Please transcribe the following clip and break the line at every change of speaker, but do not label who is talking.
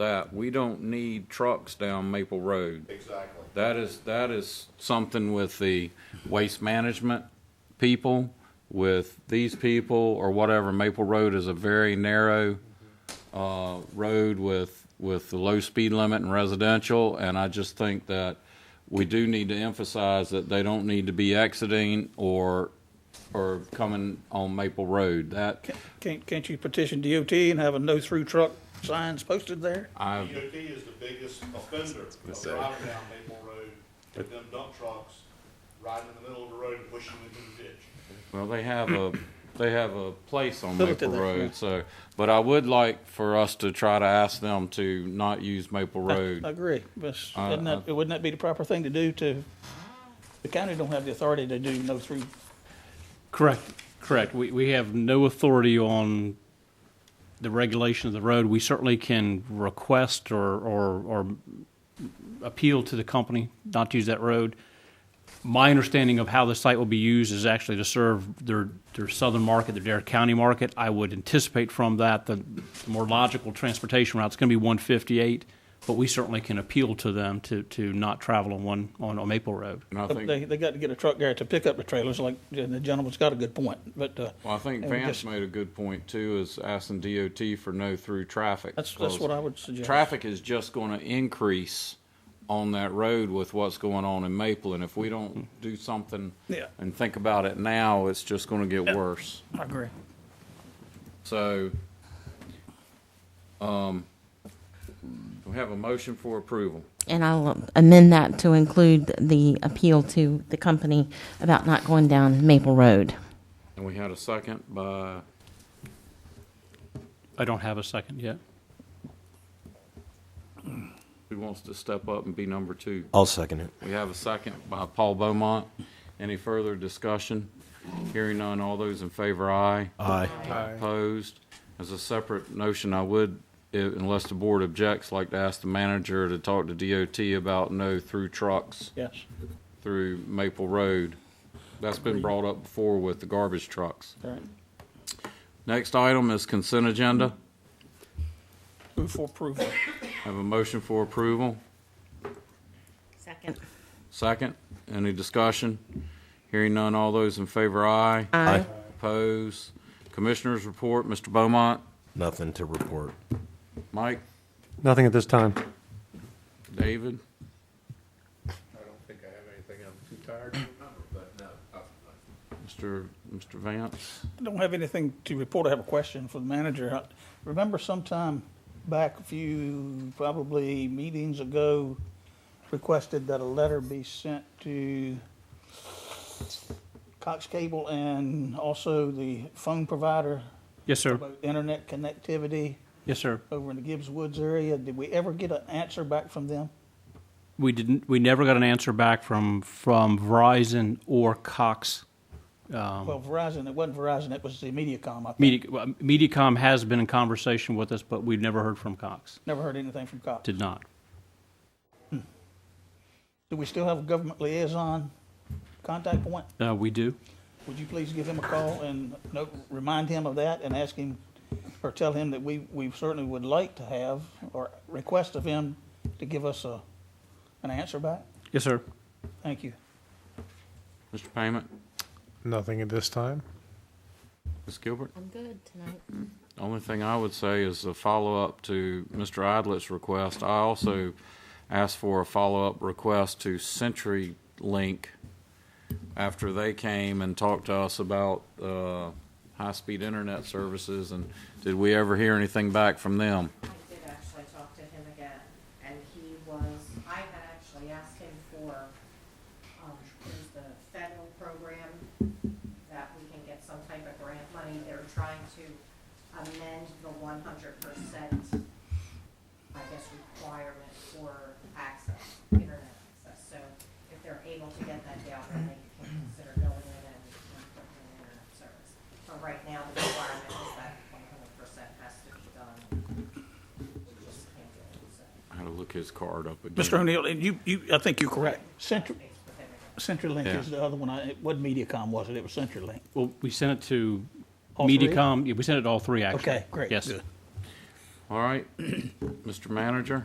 that. We don't need trucks down Maple Road.
Exactly.
That is, that is something with the waste management people, with these people, or whatever. Maple Road is a very narrow, uh, road with, with the low speed limit and residential, and I just think that we do need to emphasize that they don't need to be exiting or, or coming on Maple Road. That,
Can't, can't you petition DOT and have a no-through truck signs posted there?
I,
DOT is the biggest offender of
say.
driving down Maple Road with them dump trucks riding in the middle of the road and pushing into the ditch.
Well, they have a, they have a place on
Filter
Maple
there, yeah.
Road, so, but I would like for us to try to ask them to not use Maple
I
Road.
agree, but s-
I-
isn't that, wouldn't that be the proper thing to do to, the county don't have the authority to do no-through.
Correct, correct. We, we have no authority on the regulation of the road. We certainly can request or, or, or appeal to the company not to use that road. My understanding of how the site will be used is actually to serve their, their southern market, their Dare County market. I would anticipate from that, the more logical transportation route's gonna be one fifty-eight, but we certainly can appeal to them to, to not travel on one, on, on Maple Road.
And I think,
They, they got to get a truck there to pick up the trailers, like, the gentleman's got a good point, but, uh,
well, I think
and we
Vance
just-
made a good point too, is asking DOT for no through traffic.
that's, that's what I would suggest.
Traffic is just gonna increase on that road with what's going on in Maple, and if we don't do something
Yeah.
and think about it now, it's just gonna get worse.
I agree.
So, um, we have a motion for approval.
And I'll amend that to include the appeal to the company about not going down Maple Road.
And we had a second by,
I don't have a second yet.
who wants to step up and be number two?
I'll second it.
We have a second by Paul Beaumont. Any further discussion? Hearing none, all those in favor, aye.
Aye.
Opposed? As a separate notion, I would, i- unless the board objects, like to ask the manager to talk to DOT about no through trucks
Yes,
through Maple Road. That's been brought up before with the garbage trucks.
all right.
Next item is consent agenda.
Move for approval.
Have a motion for approval.
Second.
Second, any discussion? Hearing none, all those in favor, aye.
Aye.
Opposed? Commissioners report, Mr. Beaumont,
Nothing to report.
Mike,
Nothing at this time.
David,
I don't think I have anything, I'm too tired to remember, but no, I-
Mr. Mr. Vance.
I don't have anything to report. I have a question for the manager. I Remember sometime back a few, probably meetings ago, requested that a letter be sent to Cox Cable and also the phone provider
Yes, sir.
about internet connectivity
Yes, sir.
over in the Gibbs Woods area. Did we ever get an answer back from them?
We didn't. We never got an answer back from from Verizon or Cox.
Well, Verizon, it wasn't Verizon, it was the MediaCom, I think.
Um, Media, well, MediaCom has been in conversation with us, but we've never heard from Cox.
Never heard anything from Cox.
Did not.
Do we still have a government liaison contact point?
Uh, we do.
Would you please give him a call and no- remind him of that and ask him, or tell him that we, we certainly would like to have, or request of him to give us a, an answer back?
Yes, sir.
Thank you.
Mr. Payment,
Nothing at this time?
Ms. Gilbert.
I'm good tonight.
Only thing I would say is a follow-up to Mr. Idlet's request. I also asked for a follow-up request to CenturyLink after they came and talked to us about uh, high-speed internet services, and did we ever hear anything back from them?
I did actually talk to him again, and he was, I had actually asked him for, um, there's the federal program that we can get some type of grant money. They're trying to amend the one hundred percent, I guess, requirement for access, internet access. So if they're able to get that down, then they can consider going in and improving internet service. But right now, the requirement is that one hundred percent has to be done
I had to look his card up again.
Mr. O'Neill, and you, you, I think you're correct. Central, CenturyLink
Yeah.
is the other one. I, it wasn't MediaCom, was it? It was CenturyLink.
Well, we sent it to
All three?
MediaCom. Yeah, we sent it to all three. Actually.
Okay, great.
Yes.
Good.
All right. Mr. Manager?